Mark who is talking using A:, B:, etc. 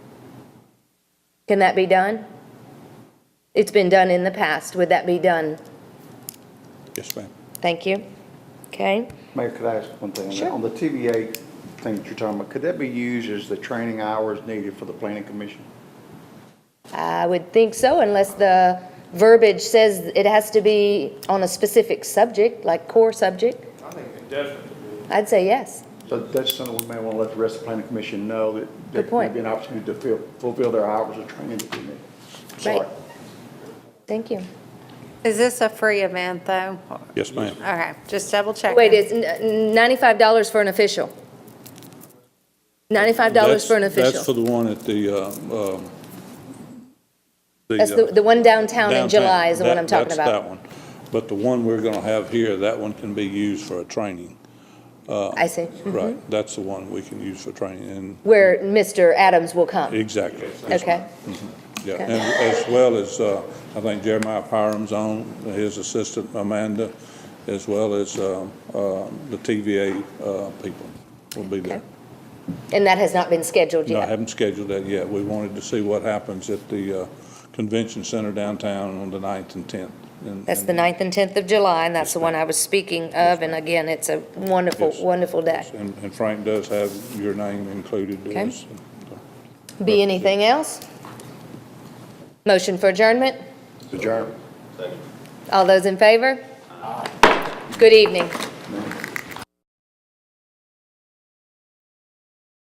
A: Can that be done? It's been done in the past. Would that be done?
B: Yes, ma'am.
A: Thank you. Okay?
C: Mayor, could I ask one thing? on that?
A: Sure.
C: On the TVA thing that you're talking about, could that be used as the training hours needed for the planning commission?
A: I would think so unless the verbiage says it has to be on a specific subject, like core subject.
D: I think it definitely would.
A: I'd say yes.
C: So that's something we may want to let the rest of the planning commission know that there
A: Good point.
C: could be an opportunity to fill- fulfill their hours of training that they need. Sorry.
A: Right. Thank you.
E: Is this a free event, though?
B: Yes, ma'am.
E: Okay, just double check.
A: Wait, it's n- $95 for an official? $95 for an
B: That's- That's for
A: official?
B: the one at the, um, um,
A: That's the,
B: uh,
A: the one downtown in
B: downtown.
A: July is the one
B: That-
A: I'm talking
B: That's that
A: about.
B: one. But the one we're going to have here, that one can be used for a training.
A: I see.
B: Right, that's the one we can use for training, and
A: Where Mr. Adams will come.
B: exactly. Yes,
A: Okay?
B: Yeah,
A: Okay.
B: and as well as, uh, I think Jeremiah Pyram's on, his assistant Amanda, as well as um, uh, the TVA uh, people will be there.
A: Okay. And that has not been scheduled
B: No, I
A: yet?
B: haven't scheduled that yet. We wanted to see what happens at the uh, Convention Center downtown on the 9th and 10th. and-
A: That's
B: and-
A: the 9th and 10th of July, and that's the one I was speaking of. And again, it's a wonderful,
B: Yes.
A: wonderful day.
B: And and Frank does have your name included.
A: Okay.
B: as-
A: Be anything else? Motion for adjournment?
C: Adjourn.
A: All those in favor? Good evening.